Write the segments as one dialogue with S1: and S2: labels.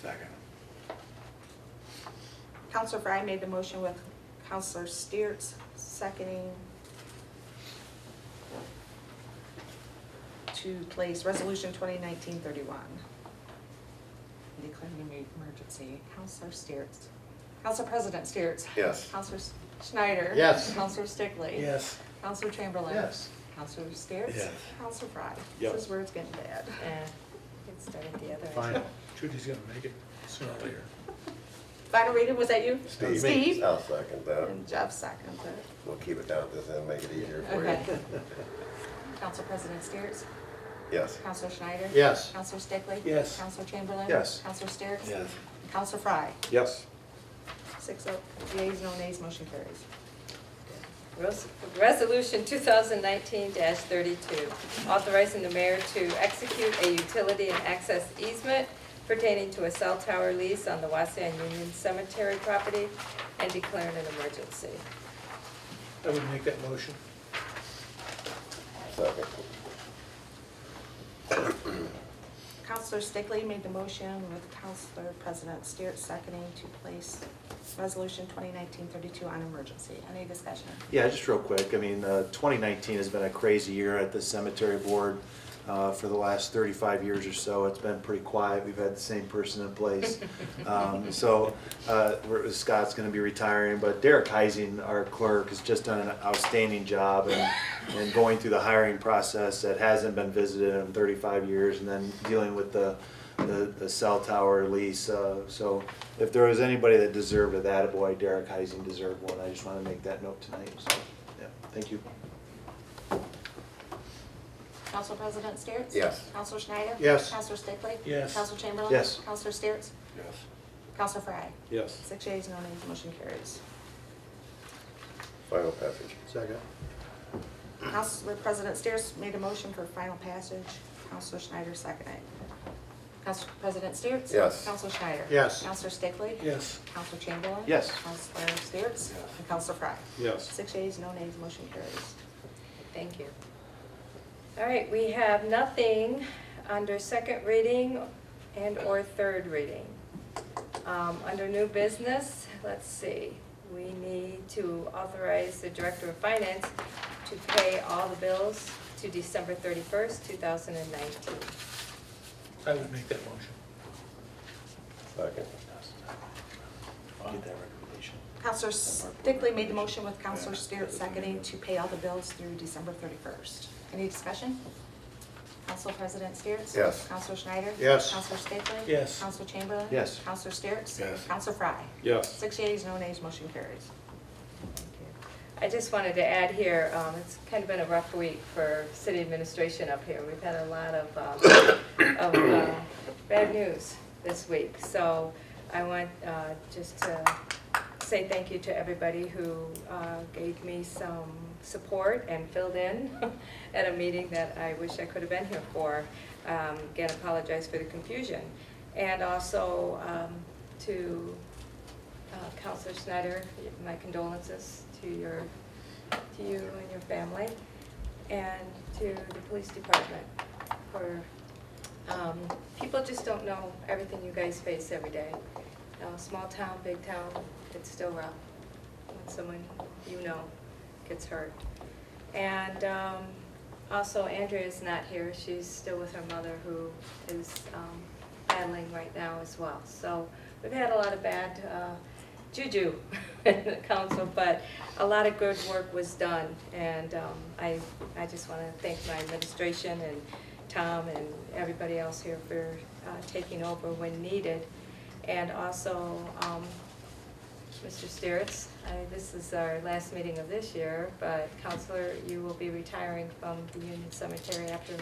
S1: Second.
S2: Counselor Fry made the motion with Counselor Steers seconding to place Resolution 2019-31. Declaring an emergency. Counselor Steers. Council President Steers.
S1: Yes.
S2: Counselor Schneider.
S1: Yes.
S2: Counselor Stickley.
S3: Yes.
S2: Counselor Chamberlain.
S3: Yes.
S2: Counselor Steers.
S1: Yes.
S2: Counselor Fry.
S1: Yep.
S2: This is where it's getting bad.
S4: Eh, Get started the other way.
S3: Final. Judy's gonna make it sooner or later.
S2: Final reading, was that you?
S5: Steve.
S2: Steve?
S5: I'll second that.
S2: And Jeff seconds it.
S5: We'll keep it down at this end, make it easier for
S2: Okay.
S5: you.
S2: Council President Steers.
S5: Yes.
S2: Counselor Schneider?
S3: Yes.
S2: Counselor Stickley?
S3: Yes.
S2: Counselor Chamberlain?
S3: Yes.
S2: Counselor Steeritz?
S1: Yes.
S2: Counselor Fry?
S1: Yes.
S2: Six oh, yeas, no nays, motion carries.
S4: Res- Resolution 2019-32, authorizing the mayor to execute a utility and access easement pertaining to a cell tower lease on the Waseon Union Cemetery property and declaring an emergency.
S3: I would make that motion.
S5: Second.
S2: Counselor Stickley made the motion with Counselor President Steeritz seconding to place Resolution 2019-32 on emergency. Any discussion?
S6: Yeah, just real quick, I mean, uh, 2019 has been a crazy year at the cemetery board. Uh, For the last 35 years or so, it's been pretty quiet, we've had the same person in place. Um, So uh, we're- Scott's going to be retiring, but Derek Heising, our clerk, has just done an outstanding job and and going through the hiring process that hasn't been visited in 35 years, and then dealing with the the the cell tower lease. uh, So if there was anybody that deserved it, that boy, Derek Heising deserved one. I just want to make that note tonight, so, yeah, thank you.
S2: Counselor President Steeritz?
S5: Yes.
S2: Counselor Schneider?
S3: Yes.
S2: Counselor Stickley?
S3: Yes.
S2: Counselor Chamberlain?
S6: Yes.
S2: Counselor Steeritz?
S1: Yes.
S2: Counselor Fry?
S1: Yes.
S2: Six yeas, no nays, motion carries.
S5: Final passage.
S3: Second.
S2: Council President Steers made a motion for final passage. Councilor Schneider seconded. Council President Steers?
S5: Yes.
S2: Councilor Schneider?
S3: Yes.
S2: Councilor Stickley?
S3: Yes.
S2: Councilor Chamberlain?
S6: Yes.
S2: Councilor Steers? And Councilor Fry?
S1: Yes.
S2: Six yeas, no nays, motion carries.
S4: Thank you. All right, we have nothing under second reading and/or third reading. Um, Under new business, let's see, we need to authorize the Director of Finance to pay all the bills to December 31st, 2019.
S3: I would make that motion.
S5: Second.
S6: Get that recommendation.
S2: Councilor Stickley made the motion with Councilor Steers seconding to pay all the bills through December 31st. Any discussion? Council President Steers?
S5: Yes.
S2: Councilor Schneider?
S3: Yes.
S2: Councilor Stickley?
S3: Yes.
S2: Councilor Chamberlain?
S6: Yes.
S2: Councilor Steers?
S1: Yes.
S2: Councilor Fry?
S1: Yes.
S2: Six yeas, no nays, motion carries.
S4: I just wanted to add here, um, it's kind of been a rough week for city administration up here. We've had a lot of, um, of, uh, bad news this week. So I want, uh, just to say thank you to everybody who, uh, gave me some support and filled in at a meeting that I wish I could have been here for. Um, again, apologize for the confusion. And also, um, to uh, Counselor Snyder, my condolences to your, to you and your family, and to the police department for, um, people just don't know everything you guys face every day. Uh, Small town, big town, it's still rough when someone you know gets hurt. And um, also Andrea's not here, she's still with her mother who is um, battling right now as well. So we've had a lot of bad uh, juju in the council, but a lot of good work was done. And um, I, I just want to thank my administration and Tom and everybody else here for uh, taking over when needed. And also, um, Mr. Steeritz, I- this is our last meeting of this year, but Counselor, you will be retiring from the Union Cemetery after,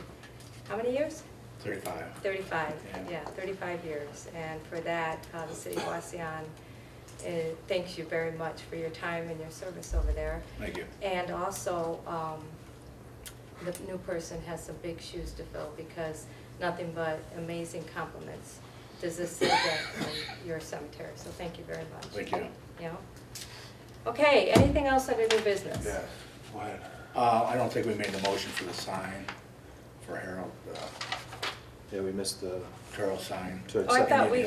S4: how many years?
S1: Thirty-five.
S4: 35,
S1: Yeah.
S4: yeah, 35 years. And for that, uh, the city of Waseon uh, thanks you very much for your time and your service over there.
S1: Thank you.
S4: And also, um, the new person has some big shoes to fill because nothing but amazing compliments does this city get from your cemetery. So thank you very much.
S1: Thank you.
S4: Yeah. Okay, anything else under new business?
S1: Go ahead. Uh, I don't think we made the motion for the sign, for Harold, uh,
S6: Yeah, we missed the
S1: Carol's sign.
S6: to
S4: Oh, I
S6: accept.
S4: thought we